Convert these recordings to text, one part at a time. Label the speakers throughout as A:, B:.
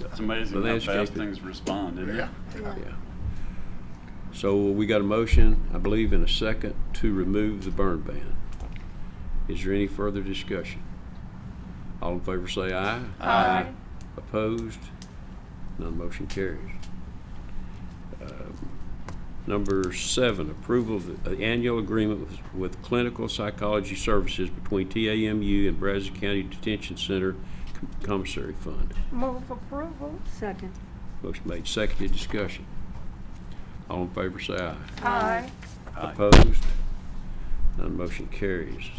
A: It's amazing
B: The
A: how fast
B: landscape-
A: things respond, isn't it?
C: Yeah.
B: Yeah. So we got a motion, I believe, in a second to remove the burn ban. Is there any further discussion? All in favor say aye.
A: Aye.
B: Opposed? None motion carries. Um, Number seven, approval of the annual agreement with- with clinical psychology services between TAMU and Brazos County Detention Center Commissary Fund.
D: Move approval.
E: Second.
B: Motion made, seconded, discussion. All in favor say aye.
D: Aye.
A: Aye.
B: Opposed? None motion carries.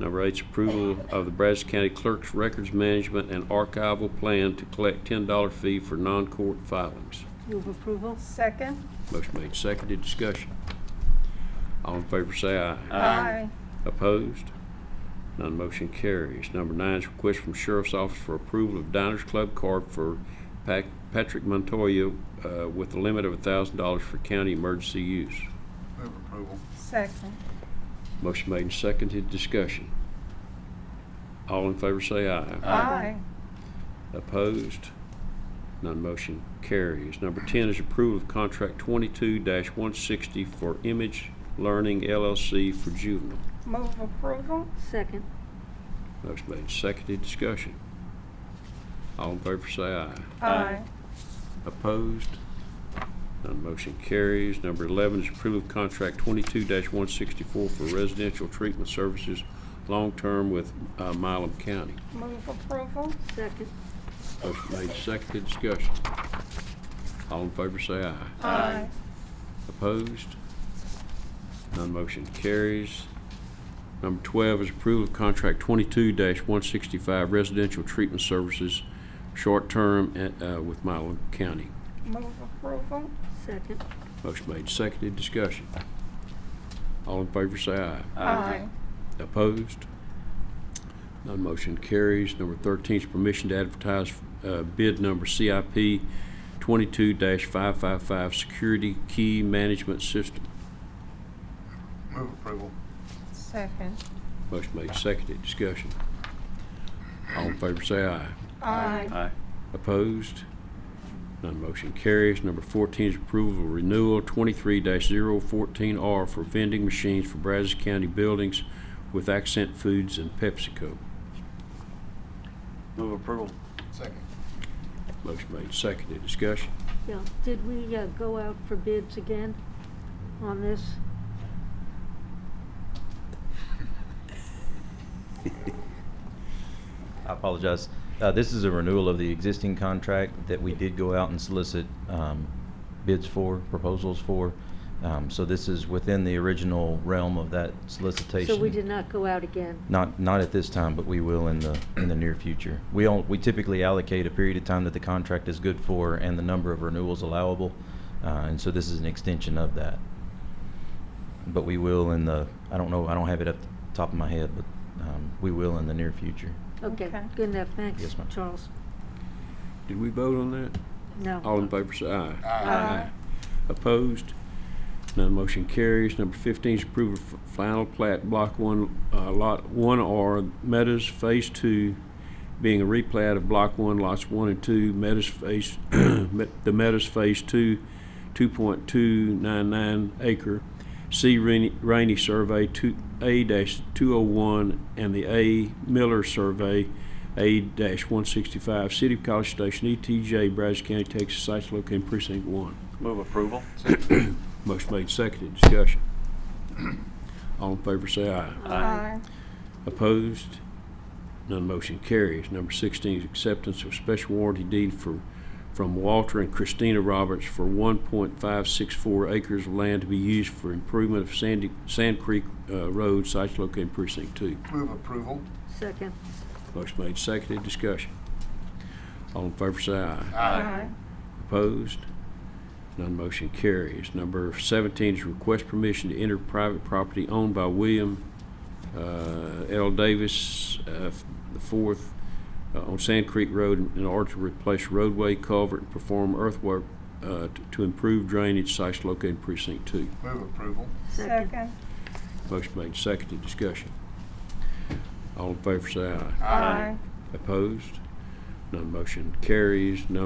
B: Number eight is approval of the Brazos County Clerk's Records Management and Archival Plan to collect $10 fee for non-court filings.
E: Move approval.
D: Second.
B: Motion made, seconded, discussion. All in favor say aye.
D: Aye.
B: Opposed? None motion carries. Number nine is request from Sheriff's Office for approval of Diners Club card for Pac- Patrick Montoya uh, with a limit of $1,000 for county emergency use.
C: Move approval.
D: Second.
B: Motion made and seconded, discussion. All in favor say aye.
D: Aye.
B: Opposed? None motion carries. Number 10 is approval of contract 22-160 for Image Learning LLC for juvenile.
D: Move approval.
E: Second.
B: Motion made and seconded, discussion. All in favor say aye.
D: Aye.
B: Opposed? None motion carries. Number 11 is approval of contract 22-164 for residential treatment services long-term with uh, Milam County.
D: Move approval.
E: Second.
B: Motion made, seconded, discussion. All in favor say aye.
D: Aye.
B: Opposed? None motion carries. Number 12 is approval of contract 22-165 residential treatment services, short-term at, uh, with Milam County.
D: Move approval.
E: Second.
B: Motion made, seconded, discussion. All in favor say aye.
D: Aye.
B: Opposed? None motion carries. Number 13 is permission to advertise uh, bid number CIP 22-555 Security Key Management System.
C: Move approval.
D: Second.
B: Motion made, seconded, discussion. All in favor say aye.
D: Aye.
A: Aye.
B: Opposed? None motion carries. Number 14 is approval of renewal 23-014R for vending machines for Brazos County buildings with Accent Foods and PepsiCo.
A: Move approval.
C: Second.
B: Motion made, seconded, discussion.
E: Yeah. Did we uh, go out for bids again on this?
F: I apologize. Uh, This is a renewal of the existing contract that we did go out and solicit um, bids for, proposals for. Um, So this is within the original realm of that solicitation.
E: So we did not go out again?
F: Not, not at this time, but we will in the, in the near future. We all, we typically allocate a period of time that the contract is good for and the number of renewals allowable. uh, And so this is an extension of that. But we will in the, I don't know, I don't have it up the top of my head, but um, we will in the near future.
E: Okay,
D: Okay.
E: good enough. Thanks,
F: Yes, ma'am.
E: Charles.
B: Did we vote on that?
E: No.
B: All in favor say aye.
D: Aye.
B: Opposed? None motion carries. Number 15 is approval of final plat, Block 1, uh, Lot 1R, Meadows Phase 2, being a replat of Block 1, Lots 1 and 2, Meadows Phase, Me- the Meadows Phase 2, 2.299 acre, C Rainey- Rainey Survey two- A-201, and the A Miller Survey A-165, City of College Station, ETJ, Brazos County, Texas, sites located in Precinct 1.
A: Move approval.
B: Motion made, seconded, discussion. All in favor say aye.
D: Aye.
B: Opposed? None motion carries. Number 16 is acceptance of special warranty deed for, from Walter and Christina Roberts for 1.564 acres of land to be used for improvement of Sandy, Sand Creek uh, Road, sites located in precinct two.
C: Move approval.
E: Second.
B: Motion made, seconded, discussion. All in favor say aye.
D: Aye.
B: Opposed? None motion carries. Number 17 is request permission to enter private property owned by William uh, L. Davis uh, the Fourth uh, on Sand Creek Road in order to replace roadway culvert and perform earthwork uh, t- to improve drainage sites located in precinct two.
C: Move approval.
E: Second.
D: Second.
B: Motion made, seconded, discussion. All in favor, say aye.
D: Aye.
B: Opposed? None motion carries. No